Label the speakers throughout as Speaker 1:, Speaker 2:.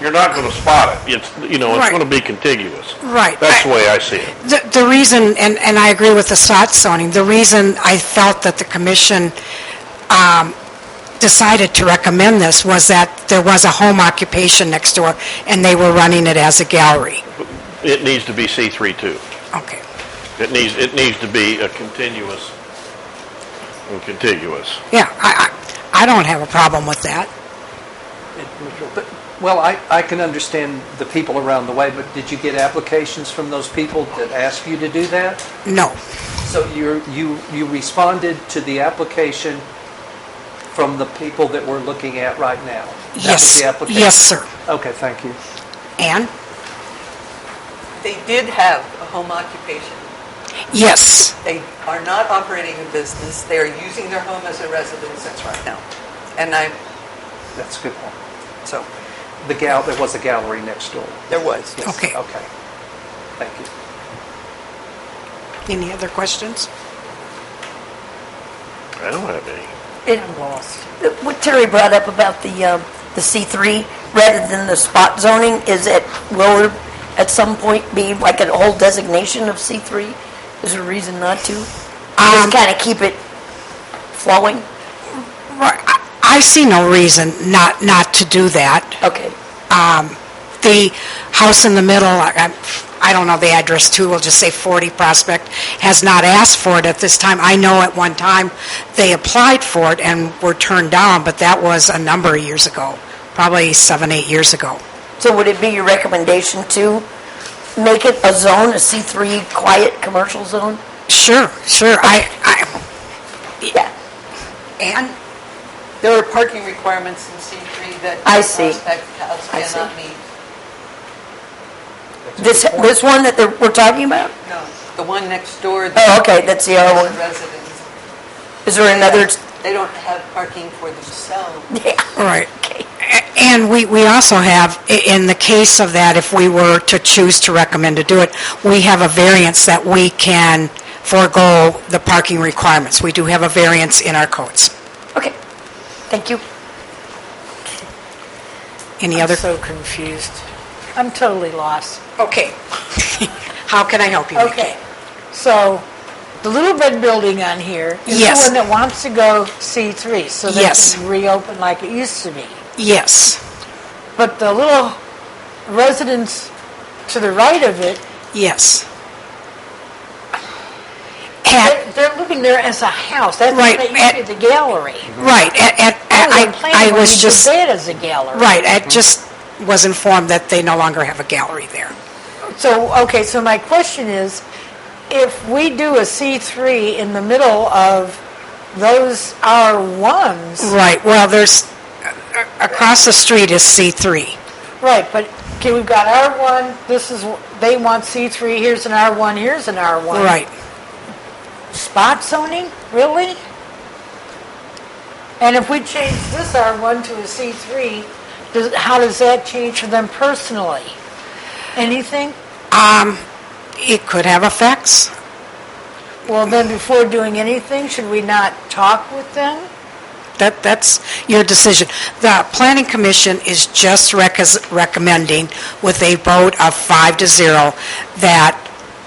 Speaker 1: You're not gonna spot it. It's, you know, it's
Speaker 2: Right.
Speaker 1: gonna be contiguous.
Speaker 2: Right.
Speaker 1: That's
Speaker 2: I-
Speaker 1: the way I see it.
Speaker 2: The the reason, and and I agree with the spot zoning, the reason I felt that the commission um, decided to recommend this was that there was a home occupation next door, and they were running it as a gallery.
Speaker 1: It needs to be C3 too.
Speaker 2: Okay.
Speaker 1: It needs, it needs to be a continuous, contiguous.
Speaker 2: Yeah, I I I don't have a problem with that.
Speaker 3: But- Well, I, I can understand the people around the way, but did you get applications from those people that asked you to do that?
Speaker 2: No.
Speaker 3: So you, you, you responded to the application from the people that we're looking at right now? That was
Speaker 2: Yes.
Speaker 3: the application?
Speaker 2: Yes, sir.
Speaker 3: Okay, thank you.
Speaker 2: Anne?
Speaker 4: They did have a home occupation.
Speaker 2: Yes.
Speaker 4: They are not operating a business. They are using their home as a residence right now. And I,
Speaker 3: That's a good one.
Speaker 4: so,
Speaker 3: The gal, there was a gallery next door.
Speaker 4: there was.
Speaker 3: Yes,
Speaker 2: Okay.
Speaker 3: Okay. Thank you.
Speaker 2: Any other questions?
Speaker 1: I don't have any.
Speaker 5: It lost. What Terry brought up about the, um, the C3, rather than the spot zoning, is it, will it at some point be like an old designation of C3? Is there a reason not to? Just kind of keep it flowing?
Speaker 2: Right, I- I see no reason not not to do that.
Speaker 5: Okay.
Speaker 2: the house in the middle, I- I I don't know the address too, we'll just say 40 Prospect, has not asked for it at this time. I know at one time they applied for it and were turned down, but that was a number of years ago, probably seven, eight years ago.
Speaker 5: So would it be your recommendation to make it a zone, a C3 quiet commercial zone?
Speaker 2: Sure, sure, I, I,
Speaker 5: Yeah.
Speaker 2: and,
Speaker 4: There are parking requirements in C3 that
Speaker 5: I see.
Speaker 4: Prospect House
Speaker 5: I see.
Speaker 4: cannot meet.
Speaker 5: This, this one that they're- we're talking about?
Speaker 4: No, the one next door.
Speaker 5: Oh, okay, that's the other
Speaker 4: is a
Speaker 5: one.
Speaker 4: Residence.
Speaker 5: Is there another?
Speaker 4: They don't have parking for themselves.
Speaker 5: Yeah.
Speaker 2: all right. A- And we we also have, i- in the case of that, if we were to choose to recommend to do it, we have a variance that we can forego the parking requirements. We do have a variance in our codes.
Speaker 5: Okay. Thank you.
Speaker 2: Any other?
Speaker 6: I'm so confused. I'm totally lost.
Speaker 2: Okay. How can I help you? Nikki?
Speaker 6: Okay, so the little red building on here is the
Speaker 2: Yes.
Speaker 6: one that wants to go C3, so they
Speaker 2: Yes.
Speaker 6: can reopen like it used to be.
Speaker 2: Yes,
Speaker 6: But the little residence to the right of it,
Speaker 2: yes.
Speaker 6: they're-
Speaker 2: At,
Speaker 6: they're living there as a house. That's
Speaker 2: Right,
Speaker 6: what they used to
Speaker 2: at-
Speaker 6: be the gallery.
Speaker 2: right, at, at-
Speaker 6: That was the
Speaker 2: I,
Speaker 6: Oh, plan
Speaker 2: I
Speaker 6: when
Speaker 2: was
Speaker 6: you did
Speaker 2: just,
Speaker 6: that as a gallery.
Speaker 2: right, I just was informed that they no longer have a gallery there.
Speaker 6: So, okay, so my question is, if we do a C3 in the middle of those R1s,
Speaker 2: Right, well, there's, a- a- across the street is C3.
Speaker 6: Right, but, okay, we've got R1, this is, they want C3, here's an R1, here's an R1.
Speaker 2: Right.
Speaker 6: Spot zoning, really? And if we change this R1 to a C3, does, how does that change for them personally? Anything?
Speaker 2: It could have effects.
Speaker 6: Well, then before doing anything, should we not talk with them?
Speaker 2: That, that's your decision. The planning commission is just rec- recommending with a vote of five to zero that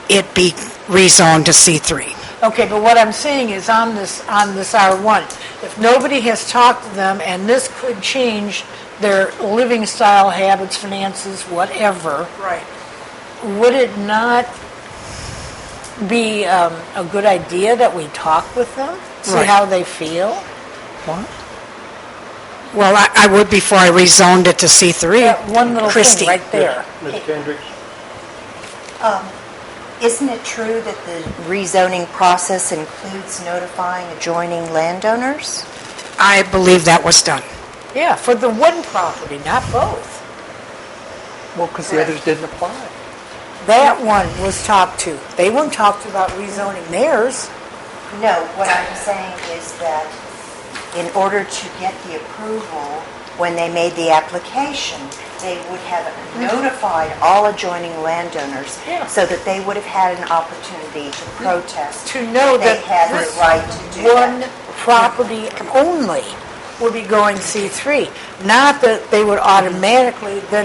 Speaker 2: it be rezoned to C3.
Speaker 6: Okay, but what I'm saying is on this, on this R1, if nobody has talked to them, and this could change their living style, habits, finances, whatever,
Speaker 4: Right.
Speaker 6: would it not be um, a good idea that we talk with them? See
Speaker 2: Right.
Speaker 6: how they feel? What?
Speaker 2: Well, I, I would before I rezoned it to C3.
Speaker 6: That one little
Speaker 2: Christie.
Speaker 6: thing right there.
Speaker 3: Ms. Kendricks?
Speaker 7: Isn't it true that the rezoning process includes notifying adjoining landowners?
Speaker 2: I believe that was done.
Speaker 6: Yeah, for the one property, not both.
Speaker 3: Well, because the others didn't apply.
Speaker 6: That one was talked to. They weren't talked about rezoning theirs.
Speaker 7: No, what I'm saying is that in order to get the approval, when they made the application, they would have notified all adjoining landowners
Speaker 6: Yeah.
Speaker 7: so that they would have had an opportunity to protest.
Speaker 6: to know
Speaker 7: They
Speaker 6: that
Speaker 7: had the
Speaker 6: this
Speaker 7: right to do that.
Speaker 6: one property only would be going C3, not that they would automatically then